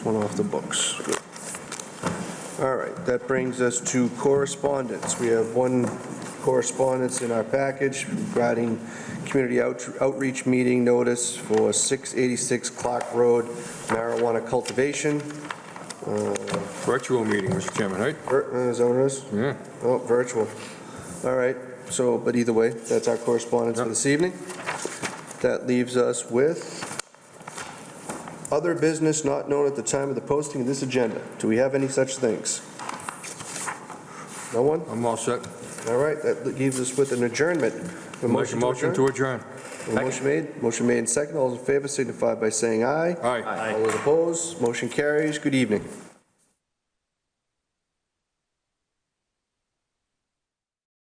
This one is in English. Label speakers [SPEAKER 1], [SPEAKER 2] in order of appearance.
[SPEAKER 1] One off the books. Good. All right, that brings us to correspondence. We have one correspondence in our package regarding community out- outreach meeting notice for 686 Clark Road marijuana cultivation. Uh,
[SPEAKER 2] Virtual meeting, Mr. Chairman, right?
[SPEAKER 1] vir- uh, Is that what it is?
[SPEAKER 2] Yeah.
[SPEAKER 1] Oh, virtual. All right, so, but either way, that's our correspondence for
[SPEAKER 2] Yep.
[SPEAKER 1] this evening. That leaves us with other business not known at the time of the posting of this agenda. Do we have any such things? No one?
[SPEAKER 2] I'm all set.
[SPEAKER 1] All right, that leaves us with an adjournment. A
[SPEAKER 2] Make a motion to adjourn.
[SPEAKER 1] adjourn? A Motion made, motion made and second. All those in favor signify by saying aye.
[SPEAKER 2] Aye.
[SPEAKER 1] All those opposed, motion carries. Good evening.